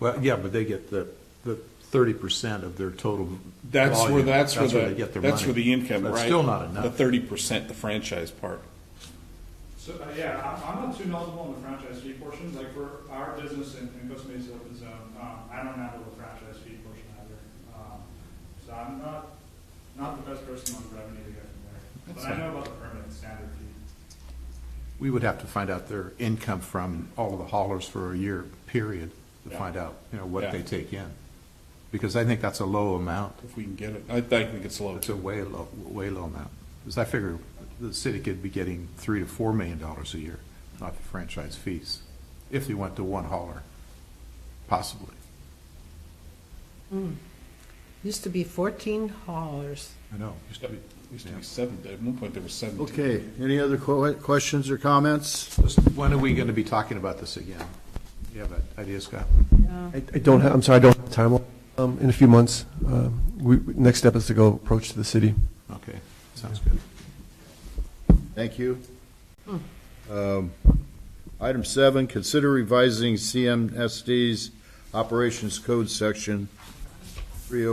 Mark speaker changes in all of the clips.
Speaker 1: Well, yeah, but they get the, the thirty percent of their total
Speaker 2: That's where,
Speaker 1: volume.
Speaker 2: that's where
Speaker 1: they
Speaker 2: the,
Speaker 1: get their
Speaker 2: that's
Speaker 1: money.
Speaker 2: where the income,
Speaker 1: That's
Speaker 2: right?
Speaker 1: still not
Speaker 2: The
Speaker 1: enough.
Speaker 2: thirty percent, the franchise part.
Speaker 3: So, uh, yeah, I'm, I'm not too knowledgeable on the franchise fee portion, like for our business in, in Costa Mesa Open Zone, um, I don't handle the franchise fee portion either. Um, So I'm not, not the best person on revenue to get from there, but
Speaker 2: That's
Speaker 3: I
Speaker 2: fine.
Speaker 3: know about the permanent standard fee.
Speaker 1: We would have to find out their income from all of the haulers for a year period to
Speaker 2: Yeah.
Speaker 1: find out, you know, what
Speaker 2: Yeah.
Speaker 1: they take in. Because I think that's a low amount.
Speaker 2: If we can get it, I think it's low
Speaker 1: It's a
Speaker 2: too.
Speaker 1: way low, way low amount. Because I figure the city could be getting three to four million dollars a year, not the franchise fees, if they went to one hauler, possibly.
Speaker 4: Used to be fourteen haulers.
Speaker 1: I know. used to
Speaker 2: Yep.
Speaker 1: be-
Speaker 2: It used to be seven, at one point there was seventeen.
Speaker 5: Okay, any other que- questions or comments?
Speaker 1: Just, When are we going to be talking about this again? You have an idea, Scott?
Speaker 6: I I don't, have. I'm sorry, I don't have a timeline. Um, In a few months, um, we, we- next step is to go approach to the city.
Speaker 1: Okay, sounds good.
Speaker 5: Thank you. Um, Item seven, consider revising CMSD's Operations Code Section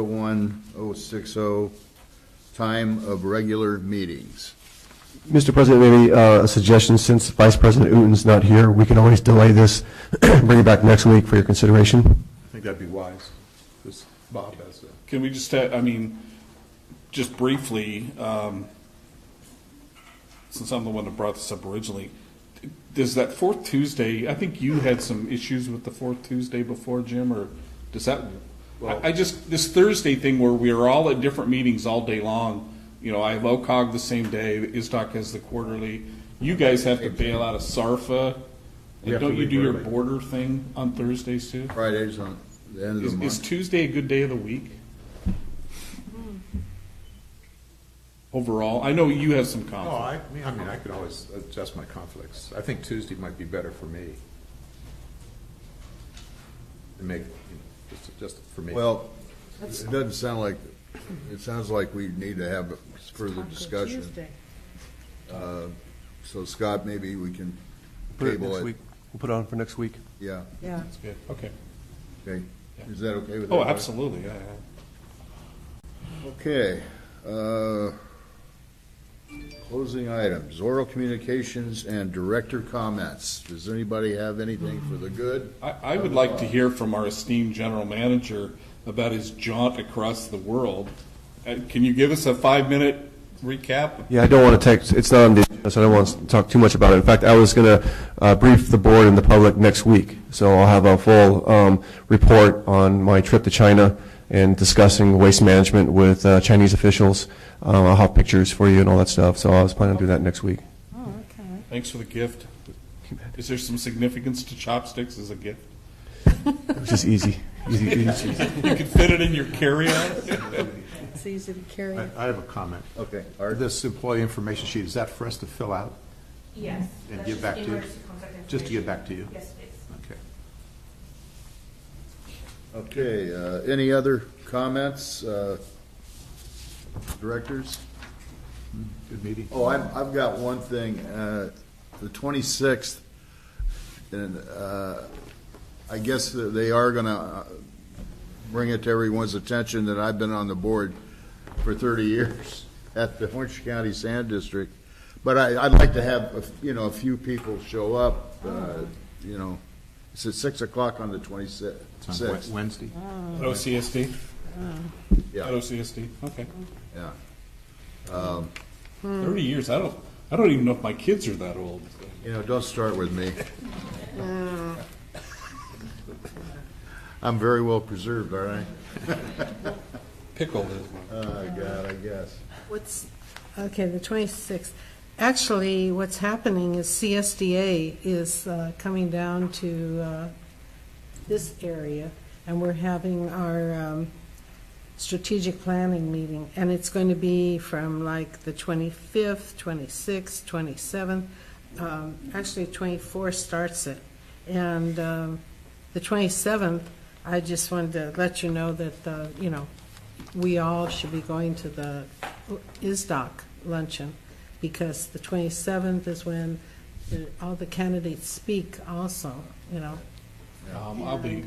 Speaker 5: 301060, oh, time of regular meetings.
Speaker 6: Mr. President, maybe uh, a suggestion, since Vice President Uten's not here, we can always delay this, bring it back next week for your consideration.
Speaker 1: I think that'd be wise, because Bob has a.
Speaker 2: Can we just, ha- I mean, just briefly, um, since I'm the one that brought this up originally, does that fourth Tuesday, I think you had some issues with the fourth Tuesday before, Jim, or does that, I I just, this Thursday thing where we are all at different meetings all day long, you know, I have OCOG the same day, ISDOC has the quarterly, you guys have to bail out of SARFA,
Speaker 1: We
Speaker 2: and
Speaker 1: have to
Speaker 2: don't you
Speaker 1: leave
Speaker 2: do your
Speaker 1: early.
Speaker 2: border thing on Thursdays too?
Speaker 5: Fridays on the end of
Speaker 2: Is,
Speaker 5: the
Speaker 2: is
Speaker 5: month.
Speaker 2: Tuesday a good day of the week? Overall, I know you have some
Speaker 1: Oh,
Speaker 2: conflict.
Speaker 1: I, I mean, I could always adjust my conflicts. I think Tuesday might be better for me. To make, you know, just, just for me.
Speaker 5: Well, it doesn't sound like, it sounds like we need to have further
Speaker 4: Taco
Speaker 5: discussion.
Speaker 4: Tuesday.
Speaker 5: So Scott, maybe we can
Speaker 6: Put it
Speaker 5: table
Speaker 6: next
Speaker 5: it.
Speaker 6: week. We'll put it on for next week.
Speaker 5: Yeah,
Speaker 4: Yeah,
Speaker 2: That's good. Okay.
Speaker 5: okay. Is that okay with everybody?
Speaker 2: Oh, absolutely, yeah, yeah.
Speaker 5: Okay. uh, Closing items, oral communications and director comments. Does anybody have anything for the good?
Speaker 2: I, I would like to hear from our esteemed general manager about his jaunt across the world. Uh, can you give us a five-minute recap?
Speaker 6: Yeah, I don't want to take, it's not on the, agenda, so I don't want to talk too much about it. In fact, I was going to brief the board and the public next week, so I'll have a full um, report on my trip to China and discussing waste management with uh, Chinese officials. Uh, I'll have pictures for you and all that stuff, so I was planning on doing that next week.
Speaker 4: oh, okay.
Speaker 2: Thanks for the gift. Is there some significance to chopsticks as a gift?
Speaker 6: It was just easy, easy, easy.
Speaker 2: You can fit it in your carry-on?
Speaker 4: It's easy to carry.
Speaker 1: I, I have a comment.
Speaker 5: Okay, Art?
Speaker 1: This employee information sheet, is that for us to fill out?
Speaker 7: Yes.
Speaker 1: And
Speaker 7: that's
Speaker 1: give
Speaker 7: just
Speaker 1: back
Speaker 7: the
Speaker 1: to you?
Speaker 7: emergency contact
Speaker 1: Just to give
Speaker 7: information.
Speaker 1: back to you?
Speaker 7: Yes, please.
Speaker 1: Okay.
Speaker 5: Okay, uh, any other comments? uh, Directors?
Speaker 1: Good meeting.
Speaker 5: Oh, I've, I've got one thing, uh, the twenty-sixth, and, uh, I guess that they are gonna uh, bring it to everyone's attention that I've been on the board for thirty years at the Orange County Sand District. But I, I'd like to have, a f- you know, a few people show up, uh, you know, it's at six o'clock on the
Speaker 1: It's on Wed-
Speaker 5: twenty-sixth,
Speaker 1: Wednesday.
Speaker 2: OCSD?
Speaker 5: yeah.
Speaker 2: OCSD, okay.
Speaker 5: yeah. Hmm.
Speaker 2: 30 years. I don't. I don't even know if my kids are that old.
Speaker 5: You know, don't start with me. I'm very well preserved, aren't I?
Speaker 2: Pickled is my.
Speaker 5: Oh, God, I guess.
Speaker 4: What's, okay, the 26th. Actually, what's happening is CSDA is uh, coming down to uh, this area, and we're having our um, strategic planning meeting, and it's going to be from like the 25th, 26th, 27th. Um, Actually, 24 starts it. And um, the 27th, I just wanted to let you know that, uh, you know, we all should be going to the ISDOC luncheon, because the 27th is when the- all the candidates speak also, you know.
Speaker 2: Um, I'll be.